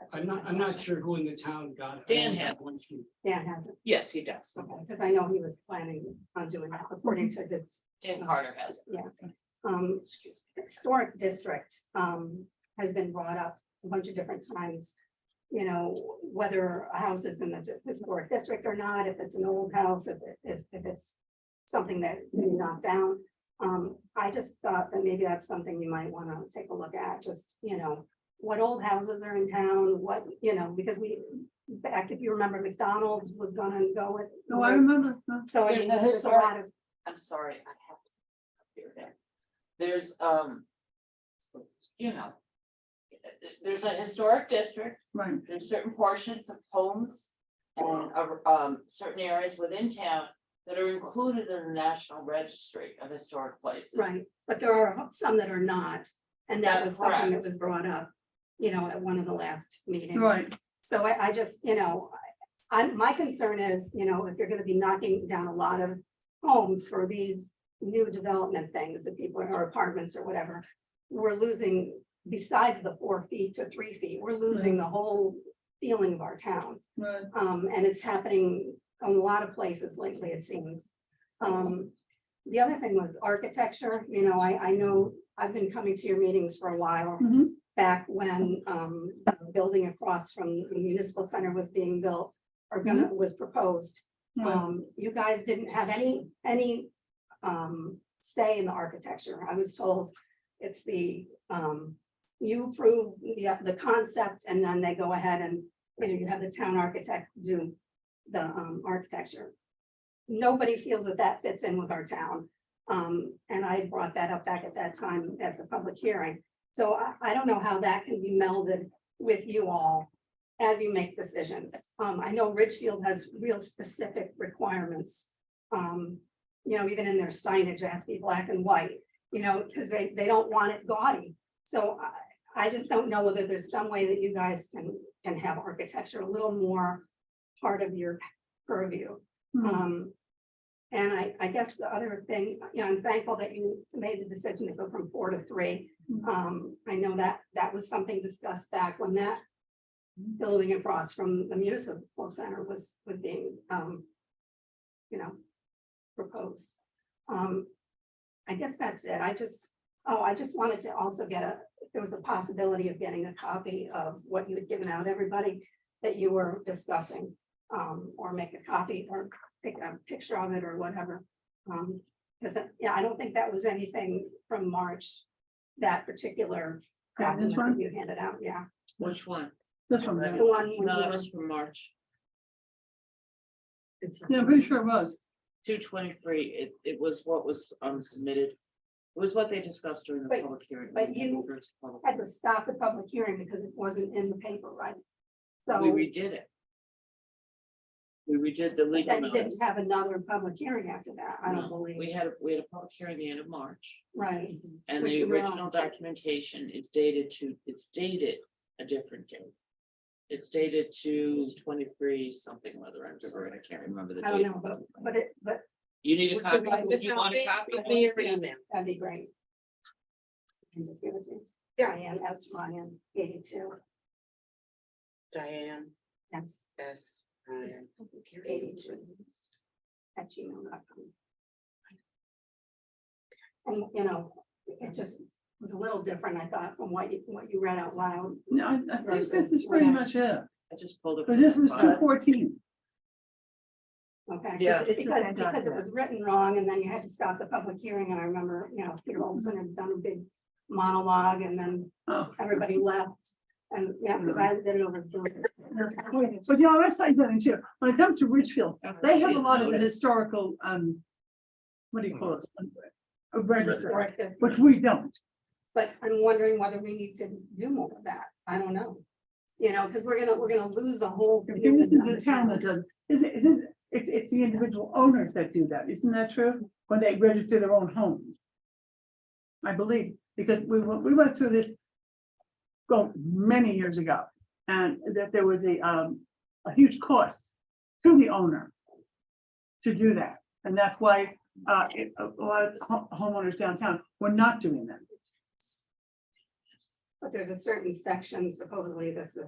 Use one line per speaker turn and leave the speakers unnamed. That's
I'm
just
not,
my
I'm not
question.
sure who in the town got it. I
Dan
only
had
got one sheet.
Dan hasn't,
Yes, he does.
okay, because I know he was planning on doing that according to his,
Dan Carter has. it.
um,
Excuse me.
historic district, um, has been brought up a bunch of different times. You know, whether a house is in the di- historic district or not, if it's an old house, if it is, if it's something that you knock down. Um, I just thought that maybe that's something you might wanna take a look at, just, you know, what old houses are in town, what, you know, because we, back if you remember McDonald's was gonna go with.
No, Oh, I remember. no.
So I
There's
mean,
no
there's a
historic-
lot of,
I'm sorry, I have. to Here it is. There's, um. You know. There's a historic district,
Right,
there's certain portions of homes. And, uh, um, certain areas within town that are included in the National Registry of Historic Places.
right, but there are some that are not, and that was
That's
something that
correct.
was brought up. You know, at one of the last meetings.
right.
So I, I just, you know, I, I'm- my concern is, you know, if you're gonna be knocking down a lot of homes for these new development things that people or apartments or whatever. We're losing, besides the four feet to three feet, we're losing the whole feeling of our town.
Right,
Um, and it's happening in a lot of places lately, it seems. Um, the other thing was architecture, you know, I, I know, I've been coming to your meetings for a while.
Mhm.
Back when, um, the building across from the municipal center was being built or gonna, was proposed.
right.
Um, you guys didn't have any, any, um, say in the architecture. I was told it's the, um, you approve the, the concept and then they go ahead and, you know, you have the town architect do the, um, architecture. Nobody feels that that fits in with our town. Um, and I brought that up back at that time at the public hearing. So I, I don't know how that can be melded with you all as you make decisions. Um, I know Ridgefield has real specific requirements. Um, you know, even in their signage, it has to be black and white, you know, because they, they don't want it gaudy. So I, I just don't know whether there's some way that you guys can, can have architecture a little more part of your purview.
Mhm.
Um, and I, I guess the other thing, you know, I'm thankful that you made the decision to go from four to three.
Mhm.
Um, I know that, that was something discussed back when that building across from the municipal center was, was being, um, you know, proposed. Um, I guess that's it. I just, oh, I just wanted to also get a, there was a possibility of getting a copy of what you had given out everybody that you were discussing, um, or make a copy or take a picture of it or whatever. Um, because, yeah, I don't think that was anything from March, that particular
Okay, this
document
one?
that you handed out, yeah.
Which one?
This one, yeah.
The one. with
No,
your-
that was from March.
yeah, I'm pretty sure it was.
Two twenty-three, it, it was what was, um, submitted. It was what they discussed during the
But-
public hearing.
but
when
you-
we first public-
had to stop the public hearing because it wasn't in the paper, right? So
We redid it. We redid the legal
then you didn't
notice.
have another public hearing after that, I
No,
don't believe,
We had, a- we had a public hearing the end of March,
right?
and
Which
the
we were on.
original documentation is dated to, it's dated a different date. It's dated to twenty-three something, whether I'm sorry, I can't remember the
I don't
date.
know, but, but it, but
You need a
We could
copy,
write
Would you want a
with
copy?
me or email. that'd be great. And just give it to me. Diane, that's Ryan, eighty-two,
Diane
that's
S.
Is-
Ryan.
eighty-two. At gmail.com. And, you know, it just was a little different, I thought, from what you, what you read out loud.
No, I, I think this is
Versus
pretty
whatever.
much it.
I just pulled up.
But this was two
But-
fourteen.
Okay.
Yeah.
because-
It's a
Because,
bad
because it
document.
was written wrong and then you had to stop the public hearing and I remember, you know, Peter Olson had done a big monologue and then
Oh.
everybody left. And, yeah, because I did it over. Zoom.
But you know, I say that, too, when it comes to Richfield, they have a lot of the
Notice.
historical, um, what do you call it?
Hmm.
A register,
Correct this.
which we don't.
But I'm wondering whether we need to do more of that. I don't know. You know, because we're gonna, we're gonna lose a whole.
This is the town that does, is it, is it, it's, it's the individual owners that do that, isn't that true? When they register their own homes. I believe, because we, went- we went through this go many years ago, and that there was a, um, a huge cost to the owner to do that, and that's why, uh, it- a lot of ho- homeowners downtown were not doing that.
But there's a certain section supposedly that's the